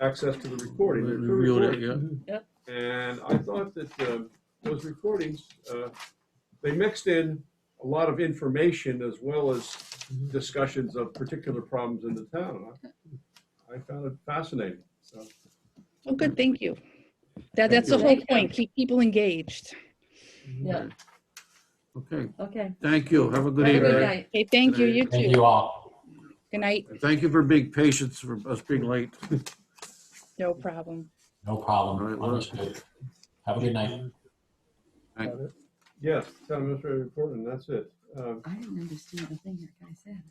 access to the recording. They're two Revealed it, recordings. yeah. And I thought that uh, those recordings, uh, they mixed in a lot of information as well as Mm-hmm. discussions of particular problems in the town. I- I found it fascinating, so. Oh, good, thank you. That, Thank that's the you. whole point, keep people engaged. Yeah. Okay, Okay. thank you. Have a good Have a good evening. night. Okay, thank you, you Thank too. you all. Good night, And Thank you for being patient for us being late. no problem. All No right, problem. well- Understood. Have a good night. Yes, town administrator report, and that's it. Um, I didn't understand a thing that guy said.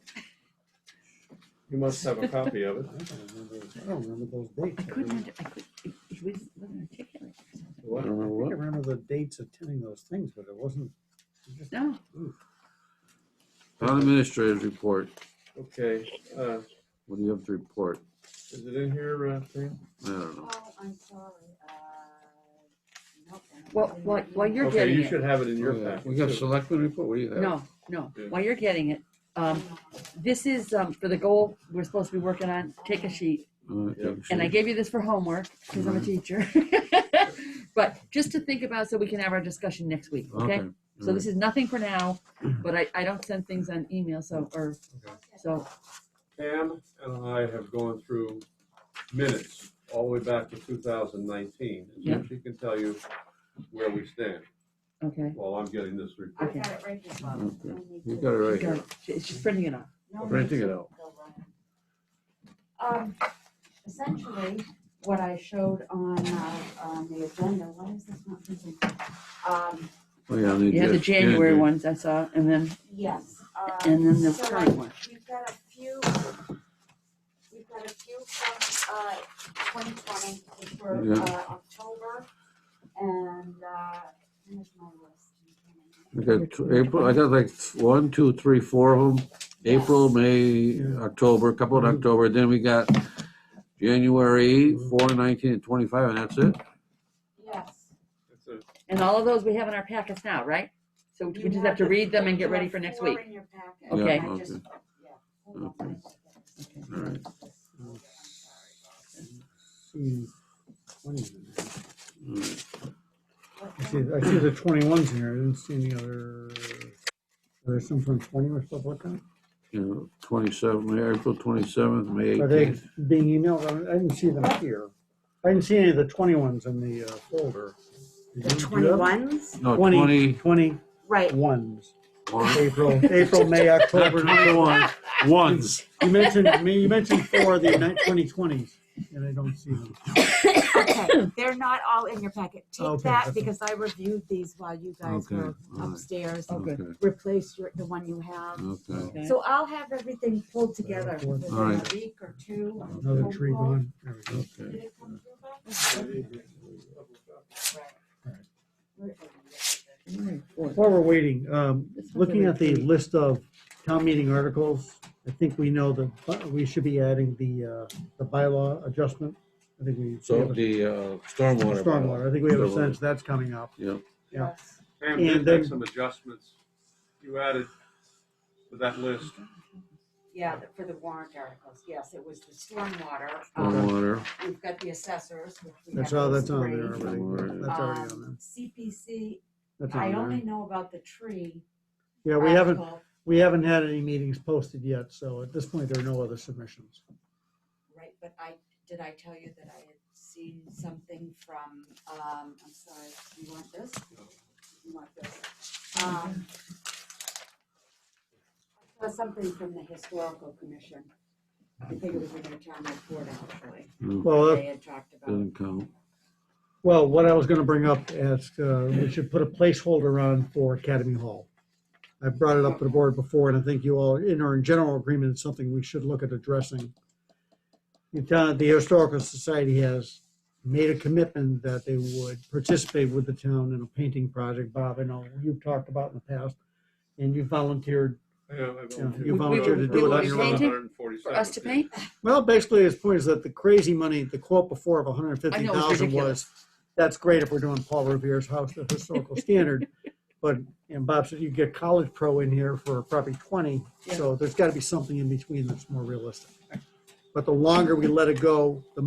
You must have a copy of it. I don't remember- I don't remember those dates. I couldn't, under- I could, it it wasn't wasn't articulate. or something. I What? don't know I think I what. remember the dates attending those things, but it wasn't. it just- No, Town administrator's report. Okay, uh, What do you have to report? is it in here, uh, Fran? I don't know. Oh, I'm sorry. Uh, nope, I don't Well, have it in while- my while email. You're Okay, getting you it. should have it in your Oh, yeah. packet. We got too. selectmen report? What do you have? no, no. Yeah. While you're getting it, um, this is, um, for the goal we're supposed to be working on, take a sheet. Uh, Yeah. okay, And I sure. gave you this for homework because I'm a Mhm. teacher. But just to think about so we can have our discussion next week, okay? Okay, So this is nothing for now, but I, I don't send things on email, so, or, so, Pam and I have gone through minutes all the way back to 2019. Yeah. And she can tell you where we stand okay. while I'm getting this I've report. Okay. got it right here, Bob. Okay. No need You to- got it right here. Go. She- She's printing it off. no need Printing it to out. go around. Um, essentially, what I showed on, uh, on the agenda, why is this not printing? Um, Oh, yeah, I need You had the to- January yeah, ones I saw, and then, yes. uh, and then the so I- current one. We've got a few, we've got a few from, uh, twenty twenty, which were, Yeah. uh, October, and, uh, here's my list. I got tw- April, I got like one, two, three, four of them. April, May, October, a couple in Mm-hmm. October, then we got January, four, nineteen, and twenty-five, and that's it? Yes. That's it. And all of those we have in our packets now, right? So we You just have to the- read them and get you ready have for next four week. in your packet. Yeah, Okay. I just- okay. yeah, hold on, Okay. I gotta get this. All right. Hmm, 20s in there. All right. What I now? see, I see the twenty-ones in here. I didn't see any other. There's some from twenty or stuff like that. You know, twenty-seven, May, April twenty-seventh, May Are they eighteenth. being emailed? I didn't see them here. I didn't see any of the twenty-ones in the uh, folder. The twenty-ones? No, 20 Twenty, twenty-ones. Right, April, April, May, October, November. Twenty-one, ones. You mentioned, you mentioned four of the ni- 2020s, and I don't see them. okay, they're not all in your packet. Take Okay, that, okay. because I reviewed these while you guys Okay, were all right. upstairs. Okay. Okay, Replace your, the one you have. okay. Okay. So I'll have everything pulled together All within a right. week or two. Another tree gone. There we go. Okay. Did it come through, Bob? Right. January fourth. While we're waiting, um, looking at the list of town meeting articles, I think we know that bu- we should be adding the, uh, the bylaw adjustment. I think we. So the uh, stormwater. Stormwater, I think we have a Stormwater. sense that's coming up. Yep. Yeah. Yes. Pam And did then- make some adjustments you added to that list. Yeah, the- for the warrant articles, yes, it was the stormwater. um, Stormwater, We've got the assessors. which we That's have all, those that's on three. there already. That's already on there. Um, CPC, That's I on only there. know about the tree. Yeah, we haven't, article we haven't had any meetings posted yet, so at this point, there are no other submissions. Right, but I, did I tell you that I had seen something from, um, I'm sorry, you want this? You want this? Um, I saw something from the historical commission. I think it was in their town report actually. no, Well, uh, that- They had talked about. doesn't count. Well, what I was gonna bring up is, uh, we should put a placeholder on for Academy Hall. I brought it up to the board before, and I think you all, in our general agreement, it's something we should look at addressing. The town, the Historical Society has made a commitment that they would participate with the town in a painting project, Bob, I know you've talked about in the past, and you volunteered. Yeah, I volunteered. you We- volunteered to do it on your own. 147, For us to paint? Well, basically, his point is that the crazy money, the quote before of hundred and I fifty know, it's thousand was, ridiculous. that's great if we're doing Paul Revere's house, the historical standard. But, and Bob said you get College Pro in here for probably twenty, so there's gotta be something in between that's more realistic. But the longer we let it go, the